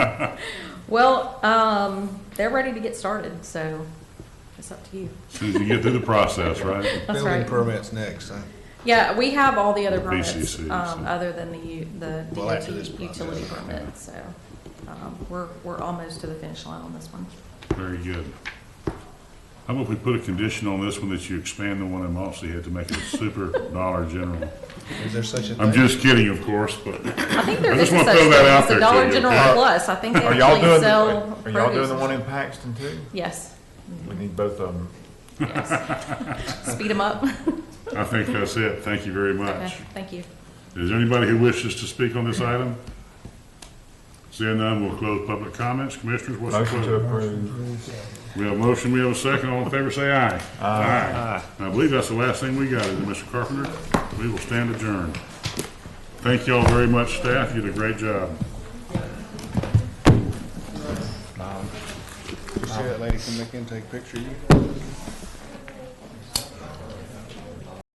Well, um, they're ready to get started, so it's up to you. Soon as you get through the process, right? That's Building right. permits next, huh? Yeah, we have all the other The permits, BCCs, um, yeah. other than the, u- the Well, DOT after this process. utility permit, so, um, we're, we're almost to the finish line on this one. Very good. How about if we put a condition on this one that you expand the one in Moxie Head to make it a super Dollar General? Is there such a I'm thing? just kidding, of course, but I think there I is just a wanna such throw thing that out as there a to Dollar you, General okay? Plus, I think they Are y'all actually doing, sell are y'all doing produce. the one in Paxton too? Yes, We need both of them. yes. Speed them up. I think that's it. Thank you very Okay, much. thank you. Is there anybody who wishes to speak on this item? Seeing none, we'll close public comments. Commissioners, what's the Motion to pleasure? approve. We have a motion, we have a second. All in favor, say aye. Aye. And I believe that's the last thing we got, is it, Mr. Carpenter? We will stand adjourned. Thank y'all very much, staff. You did a great job. You see that lady come back in, and take a picture of you?